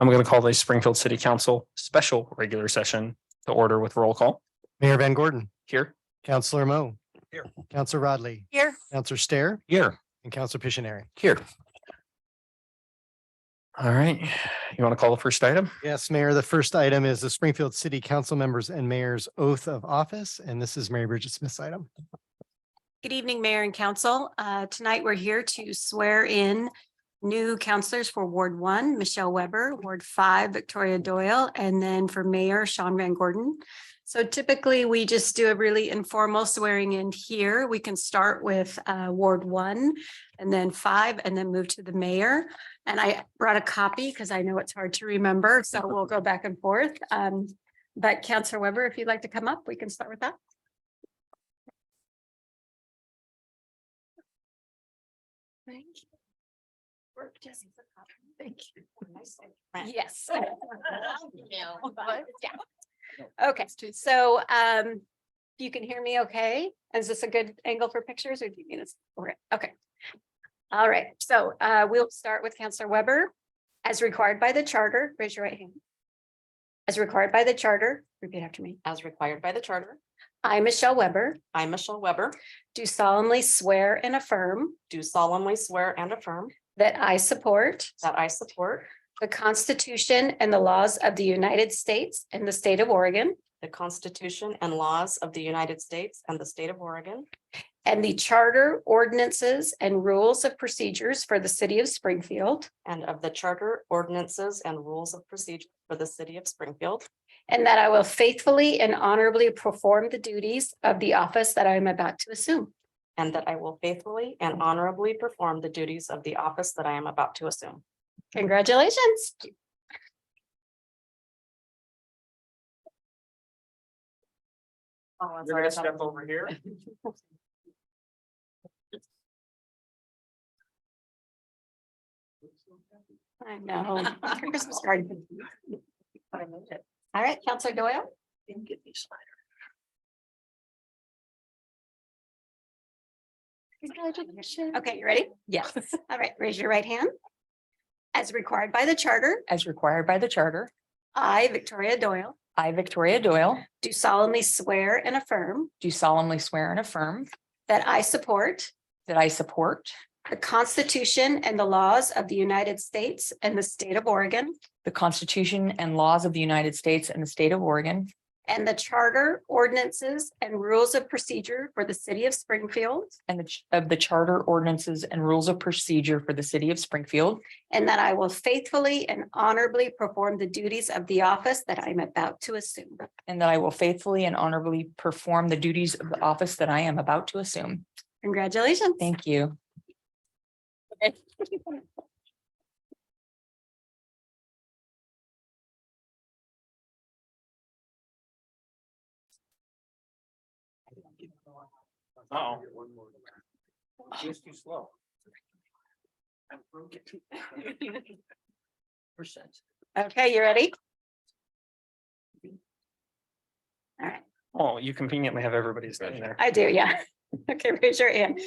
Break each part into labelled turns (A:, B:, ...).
A: I'm going to call the Springfield City Council special regular session to order with roll call
B: Mayor Van Gordon,
A: here.
B: Counselor Mo.
A: Here.
B: Counselor Rodley,
C: Here,
B: Counselor Stair,
A: Here.
B: and Counselor Pictionary.
A: Here. All right, you want to call the first item?
B: Yes, Mayor, the first item is the Springfield City Council members and mayor's oath of office, and this is Mary Bridget Smith's item.
C: good evening, Mayor and Council. Uh, Tonight, we're here to swear in new counselors for Ward One, Michelle Weber, Ward Five, Victoria Doyle, and then for Mayor Sean Van Gordon. So typically, we just do a really informal swearing in here. We can start with uh, Ward One and then Five, and then move to the mayor. And I brought a copy because I know it's hard to remember, so we'll go back and forth. Um, But Counselor Weber, if you'd like to come up, we can start with that. Thank you. Work just. Thank you. Yes. Okay, so um, you can hear me okay? Is this a good angle for pictures or do you need us? Okay. All right, so uh, we'll start with Counselor Weber. As required by the charter, raise your right hand. As required by the charter, repeat after me.
D: As required by the charter,
C: I, Michelle Weber,
D: I, Michelle Weber,
C: do solemnly swear and affirm
D: do solemnly swear and affirm
C: that I support
D: that I support
C: the Constitution and the laws of the United States and the state of Oregon
D: the Constitution and laws of the United States and the state of Oregon
C: and the charter ordinances and rules of procedures for the city of Springfield,
D: and of the charter ordinances and rules of procedure for the city of Springfield,
C: and that I will faithfully and honorably perform the duties of the office that I am about to assume.
D: and that I will faithfully and honorably perform the duties of the office that I am about to assume.
C: Congratulations.
D: Oh, I'm
A: You're gonna
D: sorry, I
A: step
D: thought-
A: over here.
C: I know. Your Christmas card. All right, Counselor Doyle. Congratulations. Okay, you ready?
D: Yes,
C: All right, raise your right hand. As required by the charter,
D: as required by the charter,
C: I, Victoria Doyle,
D: I, Victoria Doyle,
C: do solemnly swear and affirm
D: do solemnly swear and affirm
C: that I support
D: that I support
C: the Constitution and the laws of the United States and the state of Oregon
D: the Constitution and laws of the United States and the state of Oregon,
C: and the charter ordinances and rules of procedure for the city of Springfield,
D: and the ch- of the charter ordinances and rules of procedure for the city of Springfield,
C: and that I will faithfully and honorably perform the duties of the office that I'm about to assume.
D: and that I will faithfully and honorably perform the duties of the office that I am about to assume.
C: Congratulations.
D: Thank you.
A: Oh. Just too slow.
C: Okay, you ready? All right.
A: Oh, you conveniently have everybody's name there.
C: I do, yeah. Okay, raise your hand.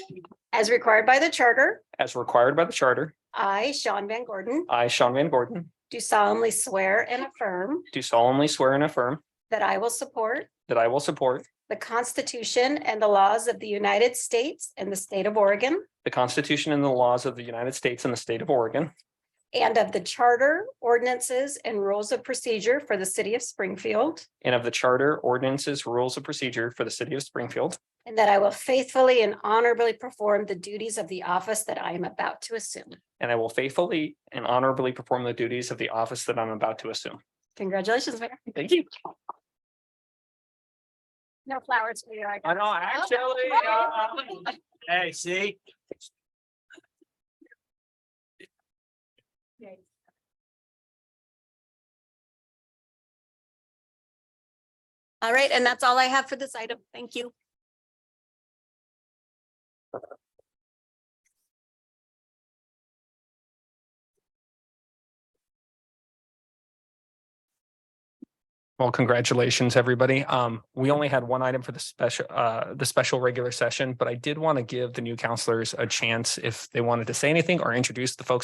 C: As required by the charter,
A: As required by the charter,
C: I, Sean Van Gordon,
A: I, Sean Van Gordon,
C: do solemnly swear and affirm
A: do solemnly swear and affirm
C: that I will support
A: that I will support
C: the Constitution and the laws of the United States and the state of Oregon
A: the Constitution and the laws of the United States and the state of Oregon,
C: and of the charter, ordinances, and rules of procedure for the city of Springfield,
A: and of the charter ordinances, rules of procedure for the city of Springfield,
C: and that I will faithfully and honorably perform the duties of the office that I am about to assume.
A: and I will faithfully and honorably perform the duties of the office that I'm about to assume.
C: Congratulations, Mayor.
A: Thank you.
C: No flowers for you. I
E: I know, actually, uh, hey, see?
C: All right, and that's all I have for this item. Thank you.
A: Well, congratulations, everybody. Um, we only had one item for the special, uh, the special regular session, but I did want to give the new counselors a chance if they wanted to say anything or introduce the folks